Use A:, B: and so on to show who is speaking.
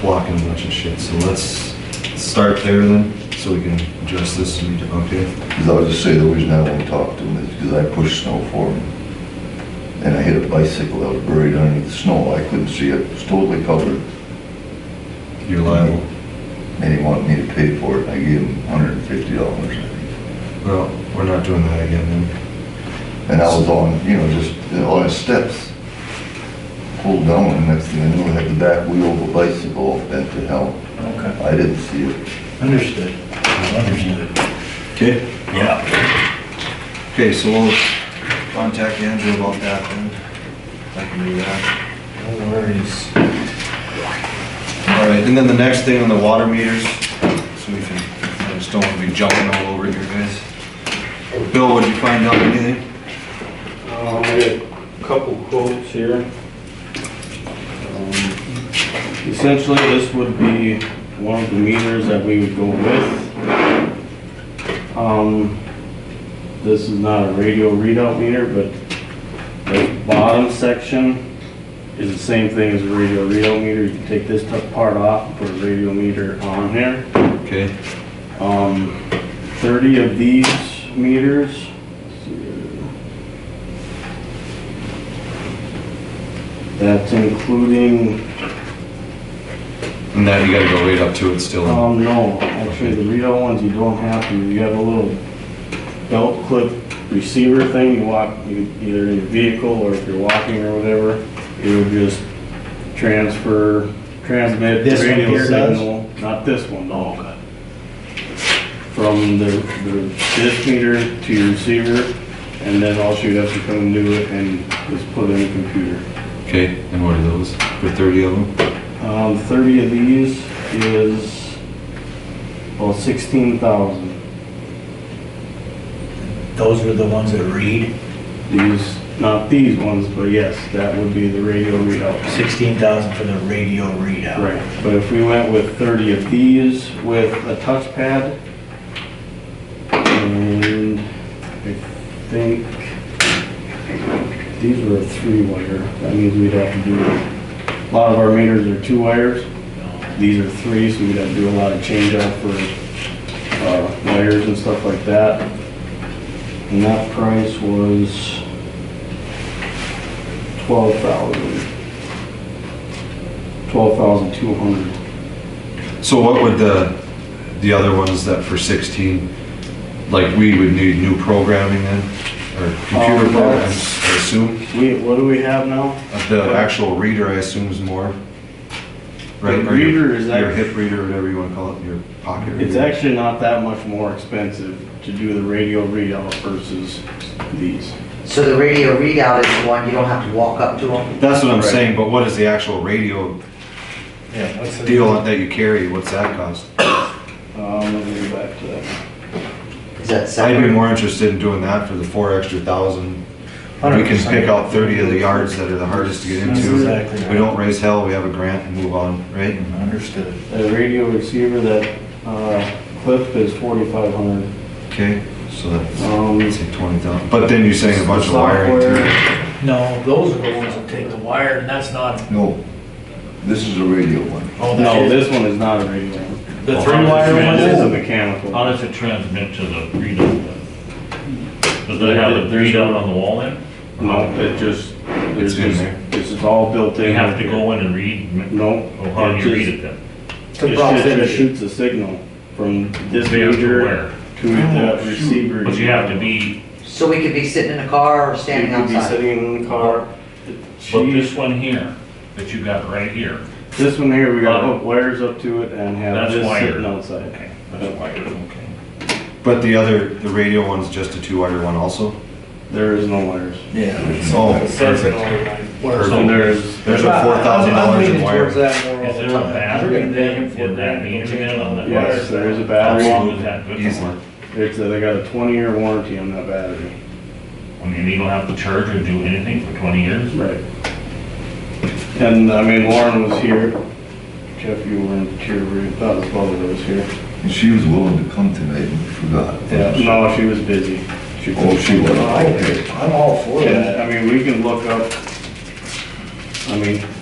A: blocking a bunch of shit, so let's start there then, so we can adjust this to meet, okay?
B: Because I would just say the reason I won't talk to him is because I pushed snow for him. And I hit a bicycle that was buried underneath the snow. I couldn't see it. It was totally covered.
A: You're liable.
B: And he wanted me to pay for it. I gave him hundred and fifty dollars, I think.
A: Well, we're not doing that again then.
B: And I was on, you know, just uh, on his steps. Pulled down and next thing I knew, I had the back wheel of a bicycle all bent to hell.
C: Okay,
B: I didn't see it.
C: understood, understood.
A: Okay.
C: Yeah.
A: Okay, so we'll contact Andrew about that then. I can do that.
C: No worries.
A: All right, and then the next thing on the water meters, so we can, I just don't want to be jumping all over here, guys. Bill, what did you find out, anything?
D: Um, I got a couple quotes here. Um, Essentially, this would be one of the meters that we would go with. Um, this is not a radio readout meter, but the bottom section is the same thing as a radio readout meter. You can take this top part off, and put a radio meter on here.
A: Okay,
D: Um, thirty of these meters. That's including,
A: and that you gotta go right up to it still.
D: um, no, actually, the readout ones you don't have to, you have a little belt clip receiver thing, you walk, you, either in your vehicle or if you're walking or whatever, it would just transfer, transmit
C: This one
D: radio
C: here does?
D: signal. Not this one, no. from the, the dish meter to your receiver, and then all you have to come and do it and just put in a computer.
A: Okay, and what are those? For thirty of them?
D: Um, thirty of these is, well, sixteen thousand.
C: Those were the ones that read,
D: These, not these ones, but yes, that would be the radio readout.
C: sixteen thousand for the radio readout.
D: Right, but if we went with thirty of these with a touchpad, and I think these were a three-wire, that means we'd have to do, a lot of our meters are two wires, these are three, so we'd have to do a lot of change-out for, uh, wires and stuff like that. And that price was twelve thousand. 12,200.
A: So what would the, the other ones that for sixteen, like we would need new programming then? Or computer
D: Um,
A: programs, I assume?
D: We, what do we have now?
A: Uh, The actual reader, I assume, is more. Right?
D: The
A: or your-
D: reader is
A: Your
D: act-
A: hip reader, whatever you wanna call it, your pocket reader.
D: It's actually not that much more expensive to do the radio readout versus these.
E: So the radio readout is the one you don't have to walk up to them?
A: That's what I'm
D: Right.
A: saying, but what is the actual radio
C: Yeah, what's the?
A: deal that you carry? What's that cost?
D: Um, let me go back to that.
E: Is that
A: I'd be
E: separate?
A: more interested in doing that for the four extra thousand. We can
C: 100%.
A: pick out thirty of the yards that are the hardest to get
C: That's
A: into.
C: exactly right.
A: We don't raise hell, we have a grant and move on, right?
C: Understood.
D: The radio receiver, that, uh, clip is 4,500.
A: Okay, so that's,
D: Um,
A: let's say twenty thousand, but then you're saying a bunch of wiring too.
D: Software,
F: No, those are the ones that take the wire, and that's not,
B: No, this is a radio one.
F: oh,
D: No,
F: that is,
D: this one is not a radio. one.
F: the three wire one
D: This is a
F: is?
D: mechanical.
G: How does it transmit to the readout then? Does it have a
D: There's-
G: readout on the wall then?
D: No, it just, it's
A: It's in
D: just,
A: there.
D: it's just all built in.
G: They have to go in and read,
D: No.
G: oh, how do
D: it
G: you read
D: just-
G: it then?
E: To
D: It's
E: browse
D: just, it
E: it.
D: shoots a signal from this
G: They have to
D: major
G: wire.
D: to the receiver.
G: But you have to be,
E: So we could be sitting in a car or standing
D: You could be
E: outside?
D: sitting in the car.
G: but
D: She,
G: this one here, that you got right here,
D: this one here, we gotta hook wires up to it and have
G: That's
D: this
G: wired.
D: sitting outside.
G: that's wired, okay.
A: But the other, the radio one's just a two-wire one also?
D: There is no wires.
C: Yeah.
A: Oh,
F: It says it
A: perfect.
F: all right.
D: And there's,
A: There's a four thousand dollars in wire.
G: Is there a battery then, in that meter then on that wire?
D: yes, there is a
G: How
D: battery.
G: long is that good
A: Easily.
G: for?
D: It's, a- they got a twenty year warranty on that battery.
G: I mean, you don't have to charge or do anything for twenty years?
D: Right. And, I mean, Lauren was here. Jeff, you weren't here, we thought his brother was here.
B: And she was willing to come tonight and forgot.
D: No, she was busy.
B: Oh, she was,
D: couldn't-
B: okay.
C: I'm all for
D: Yeah, I mean, we can look up, I mean,